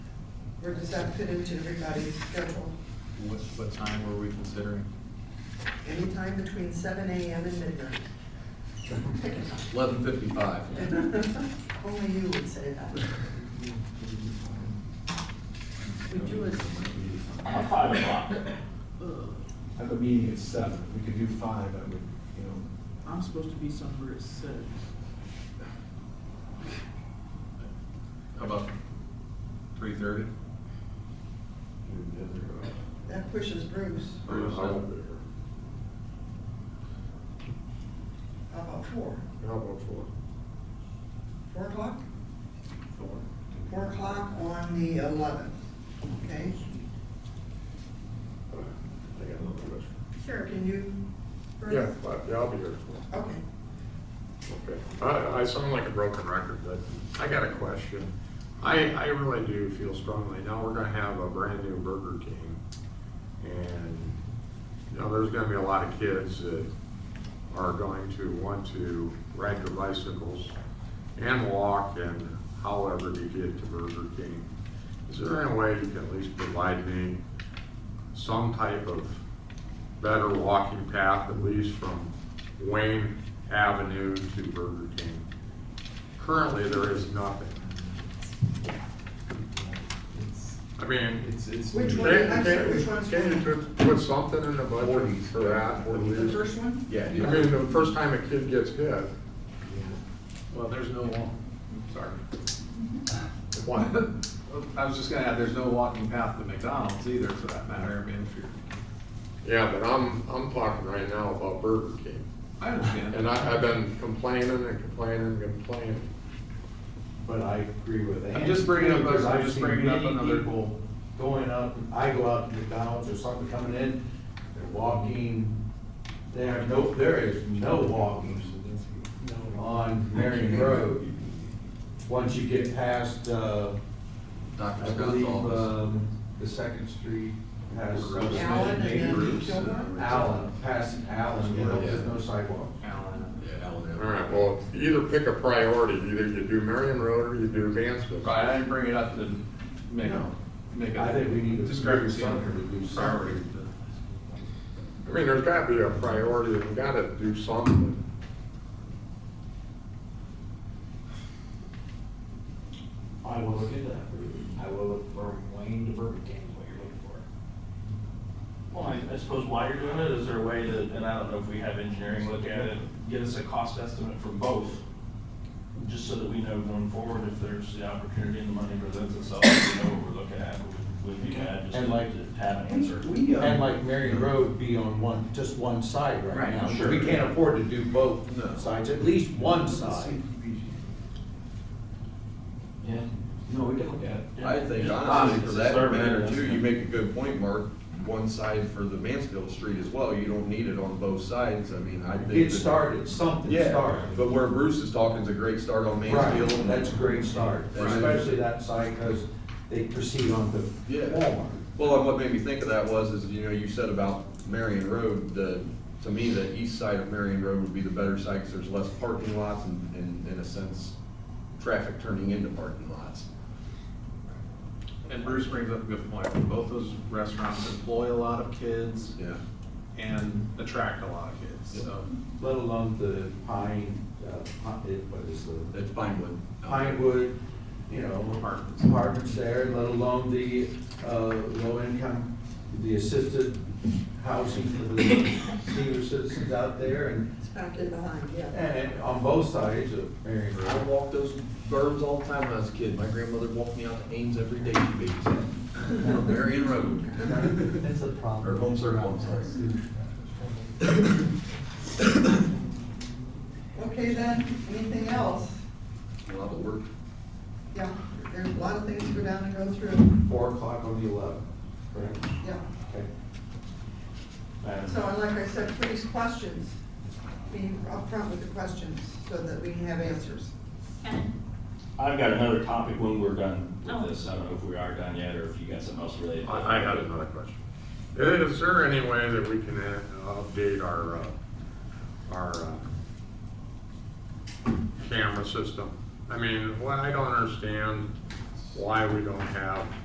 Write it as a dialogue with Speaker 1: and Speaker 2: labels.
Speaker 1: Or does that fit into everybody's schedule?
Speaker 2: What, what time were we considering?
Speaker 1: Anytime between seven AM and midnight. Pick a time.
Speaker 2: Eleven fifty-five.
Speaker 1: Only you would say that. We do it.
Speaker 3: About five o'clock.
Speaker 4: I have a meeting at seven, If we could do five, I would, you know,
Speaker 5: I'm supposed to be somewhere at six.
Speaker 2: How about three thirty?
Speaker 1: That pushes Bruce. How about four?
Speaker 6: How about four?
Speaker 1: Four o'clock? Four o'clock on the eleventh, okay?
Speaker 6: I got another question.
Speaker 1: Sure. Can you? Bruce?
Speaker 6: Yeah, but- yeah, I'll be here as well.
Speaker 1: Okay.
Speaker 6: Okay. I, I sound like a broken record, but I got a question. I, I really do feel strongly, now we're gonna have a brand new Burger King. And, you know, there's gonna be a lot of kids that are going to want to ride their bicycles and walk and however to get to Burger King. Is there any way you can at least provide me some type of better walking path, at least from Wayne Avenue to Burger King. Currently, there is nothing.
Speaker 4: it's,
Speaker 6: I mean,
Speaker 4: it's, it's.
Speaker 1: Which
Speaker 6: can,
Speaker 1: one? I'm sorry,
Speaker 6: can,
Speaker 1: which one's
Speaker 6: can you put, put something in the budget
Speaker 4: Forties,
Speaker 6: for
Speaker 4: yeah,
Speaker 6: that? at
Speaker 4: forties.
Speaker 1: The
Speaker 6: least?
Speaker 1: first one?
Speaker 4: Yeah.
Speaker 6: I mean, the first time a kid gets hit,
Speaker 2: Well, there's no walk. Sorry.
Speaker 6: one,
Speaker 2: I was just gonna add, there's no walking path to McDonald's either for that matter. I mean, if you're,
Speaker 6: yeah, but I'm, I'm talking right now about Burger King.
Speaker 2: I understand.
Speaker 6: And I, I've been complaining and complaining and complaining.
Speaker 4: But I agree with that.
Speaker 2: I'm just bringing up-
Speaker 4: Because
Speaker 2: I'm
Speaker 4: I've
Speaker 2: just
Speaker 4: seen
Speaker 2: bringing up
Speaker 4: many
Speaker 2: another-
Speaker 4: people Going up, I go out to McDonald's or something coming in, they're walking, there, no, there is no walking on Marion Road. Once you get past, uh,
Speaker 2: Dr.
Speaker 4: I
Speaker 2: Scott's
Speaker 4: believe,
Speaker 2: office.
Speaker 4: um, the Second Street has.
Speaker 1: Allen and then
Speaker 2: Groups and
Speaker 1: Gilmore?
Speaker 4: Allen, past Allen, you know, there's no sidewalk.
Speaker 2: Allen. Yeah, Allen.
Speaker 6: All right, well, either pick a priority, either you do Marion Road or you do Mansfield.
Speaker 2: Right, I didn't bring it up to make,
Speaker 4: No.
Speaker 2: make a.
Speaker 4: I think we need to-
Speaker 2: Discrepancy on
Speaker 4: something to do
Speaker 2: priority.
Speaker 6: I mean, there's gotta be a priority, we gotta do something.
Speaker 7: I will look into that for you. I will look for Wayne to Burger King, is what you're looking for.
Speaker 3: Well, I I suppose while you're doing it, is there a way to, and I don't know if we have engineering look at it, get us a cost estimate from both? Just so that we know going forward if there's the opportunity and the money presents itself, we know what we're looking at, would- would be bad just
Speaker 4: And like-
Speaker 3: to have an answer.
Speaker 7: We,
Speaker 4: And
Speaker 7: uh,
Speaker 4: like Marion Road be on one, just one side right
Speaker 2: Right,
Speaker 4: now.
Speaker 2: sure.
Speaker 4: We can't afford to do both
Speaker 2: No.
Speaker 4: sides, at least one side.
Speaker 7: yeah, no, we can look at it.
Speaker 8: I think
Speaker 3: Yeah.
Speaker 8: honestly, for
Speaker 3: It's a
Speaker 8: that
Speaker 3: survey,
Speaker 8: matter
Speaker 3: that's
Speaker 8: too,
Speaker 3: not-
Speaker 8: you make a good point, Mark, one side for the Mansfield Street as well, you don't need it on both sides, I mean, I think.
Speaker 4: Get
Speaker 8: that-
Speaker 4: started, something
Speaker 8: Yeah,
Speaker 4: started.
Speaker 8: but where Bruce is talking is a great start on
Speaker 4: Right,
Speaker 8: Mansfield.
Speaker 4: that's a great start,
Speaker 8: Right.
Speaker 4: especially that side, because they proceed on the
Speaker 8: Yeah.
Speaker 4: Walmart.
Speaker 8: Well, and what made me think of that was, is, you know, you said about Marion Road, the, to me, the east side of Marion Road would be the better side, because there's less parking lots and, and in a sense, traffic turning into parking lots.
Speaker 2: And Bruce brings up a good point. Both those restaurants employ a lot of kids
Speaker 8: Yeah,
Speaker 2: and attract a lot of kids, so.
Speaker 4: Let alone the pine, uh, pi- it- what is
Speaker 6: Oh.
Speaker 4: the
Speaker 8: it's Pinewood.
Speaker 4: Pinewood, you know,
Speaker 2: Apartments.
Speaker 4: apartments there, let alone the, uh, low income, the assisted housing for the senior citizens out there and,
Speaker 1: It's back in behind, yeah.
Speaker 4: and on both sides of Marion
Speaker 8: I
Speaker 4: Road.
Speaker 8: walked those berms all the time when I was a kid. My grandmother walked me out to Ames every day to babysit. From Marion Road.
Speaker 7: That's a
Speaker 8: Or
Speaker 7: problem.
Speaker 8: home circle, I'm sorry.
Speaker 1: Okay then, anything else?
Speaker 8: A lot of work.
Speaker 1: Yeah, there's a lot of things to go down and go through,
Speaker 4: Four o'clock on the eleventh, correct?
Speaker 1: yeah.
Speaker 4: Okay.
Speaker 3: Madam
Speaker 1: So, and like I said, please questions, be upfront with the questions so that we can have answers.
Speaker 9: Ken,
Speaker 3: I've got another topic when we're done
Speaker 9: Oh.
Speaker 3: with this. I don't know if we are done yet or if you got something else related. to
Speaker 6: I, I
Speaker 3: it.
Speaker 6: had another question. Is there any way that we can uh, update our, uh, our, uh, camera system? I mean, what I don't understand, why we don't have